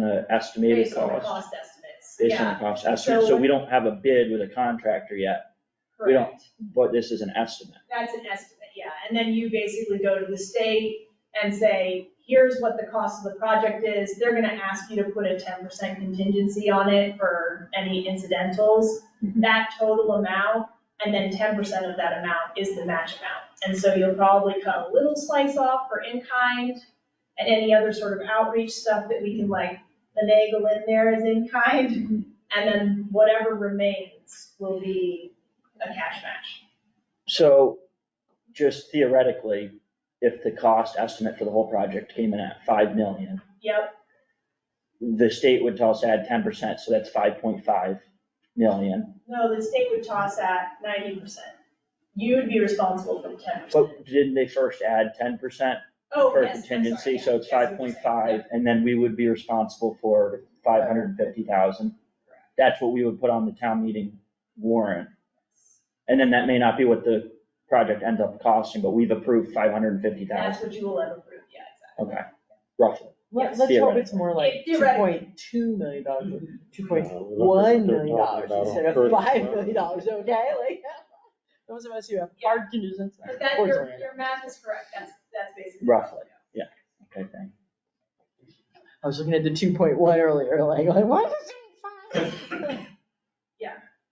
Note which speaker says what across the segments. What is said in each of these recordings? Speaker 1: the estimated
Speaker 2: based on the
Speaker 1: cost,
Speaker 2: cost estimates,
Speaker 1: based on
Speaker 2: yeah,
Speaker 1: the cost estimate, so
Speaker 2: So-
Speaker 1: we don't have a bid with a contractor yet, we don't-
Speaker 2: correct.
Speaker 1: but this is an estimate.
Speaker 2: That's an estimate, yeah, and then you basically go to the state and say, here's what the cost of the project is, they're gonna ask you to put a ten percent contingency on it for any incidentals.
Speaker 1: Mhm.
Speaker 2: That total amount, and then ten percent of that amount is the match amount. And so you'll probably cut a little slice off for in-kind and any other sort of outreach stuff that we can like finagle in there as in-kind.
Speaker 1: Mhm.
Speaker 2: And then whatever remains will be a cash match.
Speaker 1: So, just theoretically, if the cost estimate for the whole project came in at five million,
Speaker 2: Yep,
Speaker 1: the state would tell us to add ten percent, so that's five point five million.
Speaker 2: no, the state would toss at ninety percent. You'd be responsible for the ten percent.
Speaker 1: But didn't they first add ten percent
Speaker 2: Oh,
Speaker 1: for
Speaker 2: yes, I'm sorry,
Speaker 1: contingency,
Speaker 2: yeah,
Speaker 1: so it's
Speaker 2: yes, I'm
Speaker 1: five point
Speaker 2: sorry,
Speaker 1: five, and then we would be responsible for five hundred and fifty thousand? That's what we would put on the town meeting warrant, and then that may not be what the project ends up costing, but we've approved five hundred and fifty
Speaker 2: yeah. That's
Speaker 1: thousand,
Speaker 2: what you will ever prove, yeah, exactly.
Speaker 1: okay, roughly.
Speaker 3: Let-
Speaker 1: Yes,
Speaker 3: Let's hope it's
Speaker 1: theoretically.
Speaker 3: more like two
Speaker 2: Theoretically.
Speaker 3: point two million dollars, two point
Speaker 4: No, look at
Speaker 3: one
Speaker 4: what they're
Speaker 3: million dollars
Speaker 4: talking about on
Speaker 3: instead of
Speaker 4: Thursday.
Speaker 3: five million dollars, okay? Like, those of us who have hard conditions.
Speaker 2: But that,
Speaker 3: or
Speaker 2: your,
Speaker 3: something.
Speaker 2: your math is correct, that's, that's basically.
Speaker 1: Roughly. Okay, thanks.
Speaker 3: I was looking at the two point one earlier, like, like, what is it? five?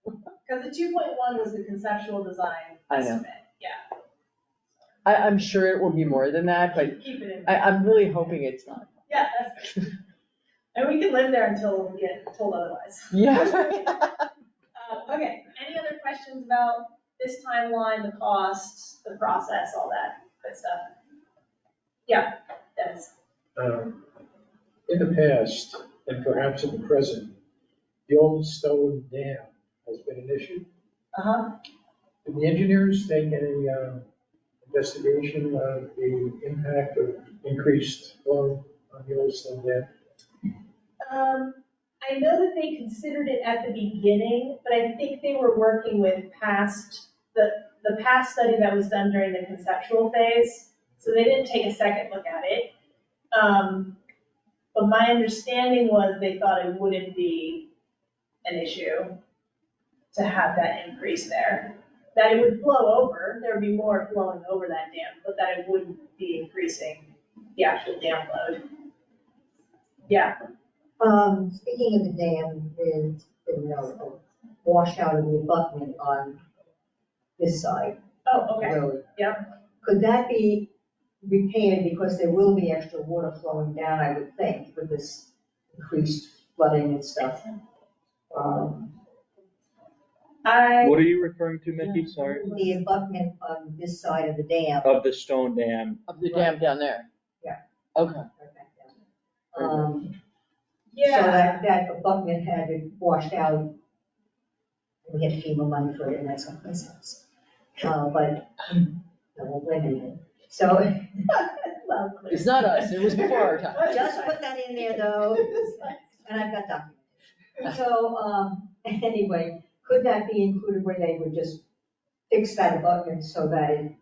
Speaker 2: Because the two point one was the conceptual design
Speaker 3: I know.
Speaker 2: estimate, yeah.
Speaker 3: I, I'm sure it will be more than that, but
Speaker 2: Keep it in,
Speaker 3: I, I'm really hoping it's not.
Speaker 2: yeah, that's, and we can live there until we get told otherwise.
Speaker 3: Yeah.
Speaker 2: Uh, okay, any other questions about this timeline, the cost, the process, all that good stuff? Yeah, Dennis,
Speaker 5: Um, In the past, and perhaps in the present, the old stone dam has been an issue.
Speaker 2: uh-huh,
Speaker 5: Did the engineers take any uh, investigation of the impact of increased flow on the old stone dam?
Speaker 2: um, I know that they considered it at the beginning, but I think they were working with past, the, the past study that was done during the conceptual phase, so they didn't take a second look at it. Um, but my understanding was they thought it wouldn't be an issue to have that increase there. That it would flow over, there would be more flowing over that dam, but that it wouldn't be increasing the actual dam load. Yeah,
Speaker 6: Um, speaking of the dam, there's been a washout of the abutment on this side
Speaker 2: oh,
Speaker 6: of the
Speaker 2: okay,
Speaker 6: road.
Speaker 2: Yep.
Speaker 6: Could that be repaired because there will be extra water flowing down, I would think, with this increased flooding and stuff? Um,
Speaker 2: I.
Speaker 1: What are you referring to, Mickey? Sorry.
Speaker 6: the abutment on this side of the dam.
Speaker 2: Oh.
Speaker 1: Of the stone dam,
Speaker 3: Of the dam down there.
Speaker 6: Yeah.
Speaker 3: Okay.
Speaker 6: Um, So
Speaker 2: Yeah,
Speaker 6: that, that abutment had been washed out. We had FEMA money for it and that's what this is. Uh, but I won't blame anyone. So, well,
Speaker 3: It's not us, it was before our time.
Speaker 6: just put that in there though, and I've got documents. So, um, anyway, could that be included where they would just fix that abutment so that it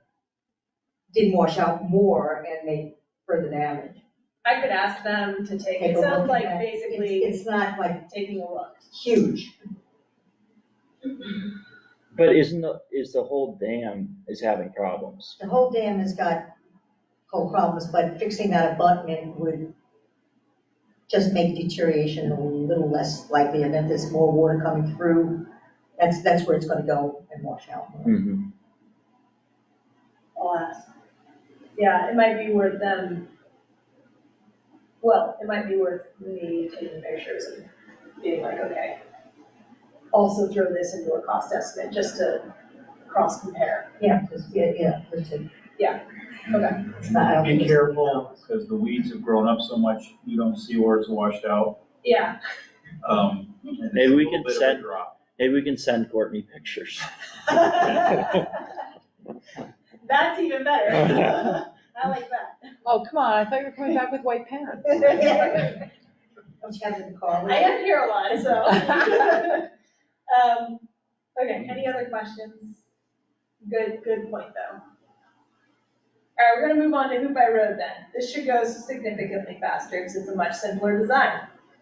Speaker 6: didn't wash out more and make further damage?
Speaker 2: I could ask them to take,
Speaker 6: Take
Speaker 2: it
Speaker 6: a
Speaker 2: sounds
Speaker 6: look
Speaker 2: like
Speaker 6: at it. It's-
Speaker 2: basically
Speaker 6: It's not like
Speaker 2: taking a look.
Speaker 6: huge.
Speaker 1: but isn't the, is the whole dam is having problems?
Speaker 6: The whole dam has got whole problems, but fixing that abutment would just make deterioration a little less likely, and then there's more water coming through, that's, that's where it's gonna go and wash out.
Speaker 1: Mm-hmm.
Speaker 2: I'll ask. Yeah, it might be worth them, well, it might be worth me taking pictures and being like, okay. Also throw this into a cost estimate, just to cross compare.
Speaker 6: Yeah, just, yeah, yeah, just to.
Speaker 2: Yeah, okay.
Speaker 6: I don't think
Speaker 7: Be
Speaker 6: it's-
Speaker 7: careful, because the weeds have grown up so much, you don't see where it's washed out.
Speaker 2: Yeah,
Speaker 7: Um, and it's
Speaker 1: Maybe we
Speaker 7: a little
Speaker 1: can
Speaker 7: bit of a
Speaker 1: send-
Speaker 7: drop.
Speaker 1: Maybe we can send Courtney pictures.
Speaker 2: that's even better. I like
Speaker 3: Oh, come on, I thought you were coming back with white pants.
Speaker 2: that.
Speaker 6: Don't you have it in the car?
Speaker 2: I am here a lot, so. Um, okay, any other questions? Good, good point, though. All right, we're gonna move on to Hoop by Road then. This should go significantly faster because it's a much simpler design.